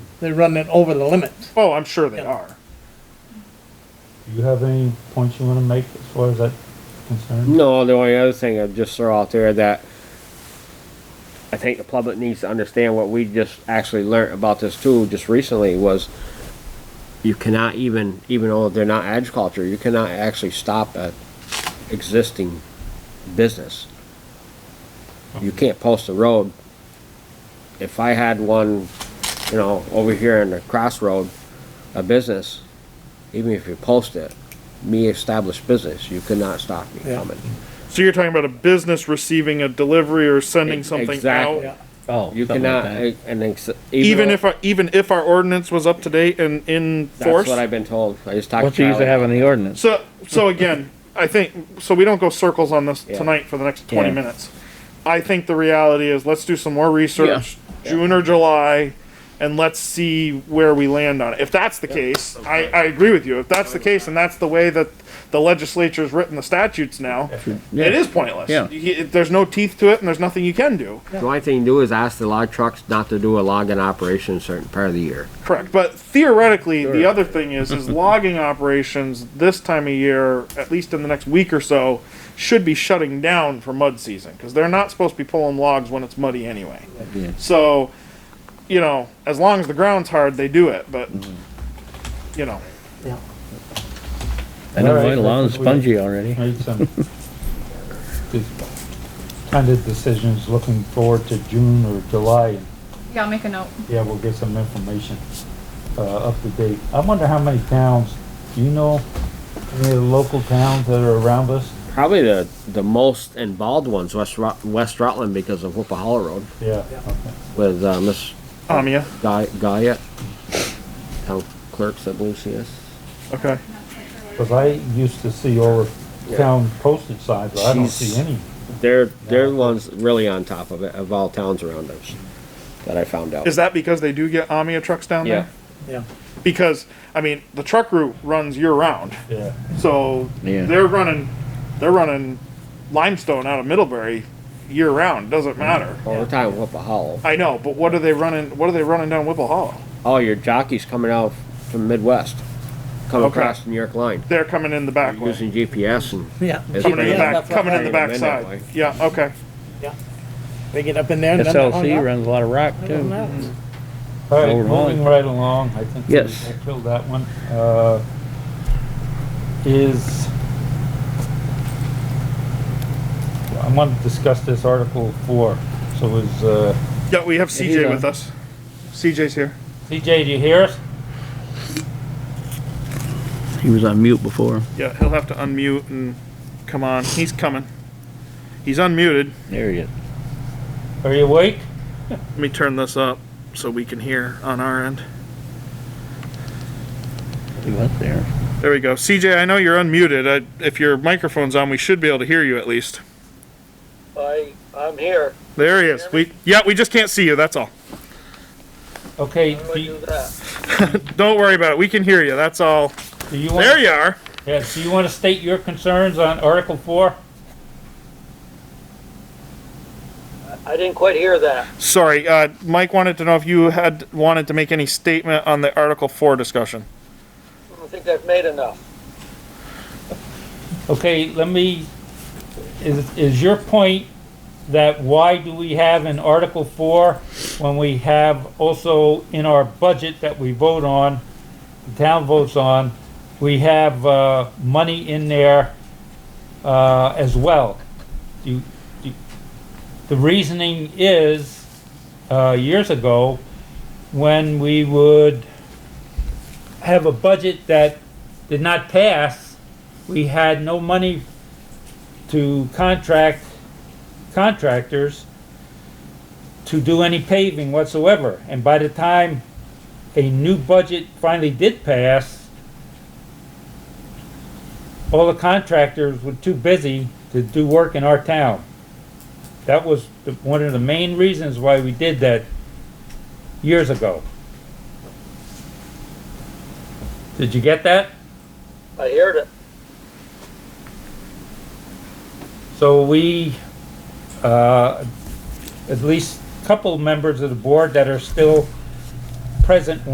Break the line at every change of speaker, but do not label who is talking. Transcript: they're running it over the limit.
Oh, I'm sure they
Yeah.
are.
Do you have any points you want to make as far as that concerned?
No, the only other thing I'd just throw out there that I think the public needs to understand what we just actually learned about this too, just recently, was you cannot even, even though they're not agriculture, you cannot actually stop a existing business. You can't post a road. If I had one, you know, over here in the crossroad, a business, even if you post it, me established business, you could not stop me
Yeah.
coming.
So you're talking about a business receiving a delivery or sending something
E-, Exactly.
out?
Yeah,
Oh,
You
something like
cannot,
that.
eh, and ex-
Even
though-
if, our- even if our ordinance was up to date and in
That's
force?
what I've been told. I just talked
What's
to
the use of
Charlie.
having the ordinance?
So, so again, I think, so we don't go circles on this
Yeah.
tonight for the next twenty
Yeah.
minutes. I think the reality is, let's do some more research, June or July, and let's see where we land on it. If that's the case, I, I agree with you. If that's the case, and that's the way that the legislature's written the statutes now,
Yeah.
it is pointless.
Yeah.
You- you- There's no teeth to it, and there's nothing you can do.
The only thing you do is ask the log trucks not to do a logging operation a certain part of the year.
Correct, but theoretically, the other thing is, is logging operations this time of year, at least in the next week or so, should be shutting down for mud season, because they're not supposed to be pulling logs when it's muddy anyway.
Yeah.
So, you know, as long as the ground's hard, they do it, but, you know,
yeah.
I know
All
my
right,
lawn's
I think we-
spongy already.
Made some good kind of decisions looking forward to June or July.
Yeah, I'll make a note.
Yeah, we'll get some information, uh, up to date. I wonder how many towns, do you know any of the local towns that are around us?
Probably the, the most involved ones, West Rut, West Rutland because of Whipple Hollow Road
Yeah.
with, uh, Miss
um, yeah,
Guy, Guyette. Town clerks, I believe she is.
okay.
Cause I used to see all the town postage signs, but I don't
She's-
see any.
They're, they're the ones really on top of it, of all towns around us, that I found out.
Is that because they do get Amia trucks down
Yeah.
there?
Yeah.
Because, I mean, the truck route runs year-round.
Yeah.
So
Yeah.
they're running, they're running limestone out of Middlebury year round. Doesn't matter.
All the time, Whipple Hollow.
I know, but what are they running? What are they running down Whipple Hollow?
All oh, your jockeys coming out from Midwest, coming
Okay.
across the New York line,
They're coming in the back way.
using GPS and.
Yeah.
Is it
Coming in the
Yeah,
back. Coming in the
Bring 'em
back
in that
side.
way.
Yeah. Okay.
They get up in there and then. they're hung
SLC
up.
runs a lot of rock
They're hung
too.
up.
All right,
Overall.
moving right along, I think we
Yes.
I killed that one. Uh, Is, I want to discuss this Article 4, so is, uh,
Yeah. uh, We have
he's
CJ
on.
with us. CJ's here.
CJ, do you hear us?
He was on mute before.
Yeah. He'll have to unmute and come on. He's coming. He's unmuted.
There he is.
Are you awake?
Let me turn this up so we can hear on our end.
He went there.
There we go. CJ, I know you're unmuted. I, if your microphone's on, we should be able to hear you at least.
I, I'm here.
There he is. We yeah. We just can't see you. That's all.
Okay,
How do
do
I
you-
do that?
Don't worry about it. We can hear you. That's all.
do you
There
want,
you are.
yeah, do you want to state your concerns on Article 4?
I didn't quite hear that.
Sorry, uh, Mike wanted to know if you had wanted to make any statement on the Article Four discussion.
I don't think I've made enough.
Okay, let me, is, is your point that why do we have in Article Four, when we have also in our budget that we vote on, the town votes on, we have, uh, money in there, uh, as well? Do, do, the reasoning is, uh, years ago, when we would have a budget that did not pass, we had no money to contract contractors to do any paving whatsoever. And by the time a new budget finally did pass, all the contractors were too busy to do work in our town. That was the, one of the main reasons why we did that years ago. Did you get that?
I heard it.
So we, uh, at least a couple members of the board that are still present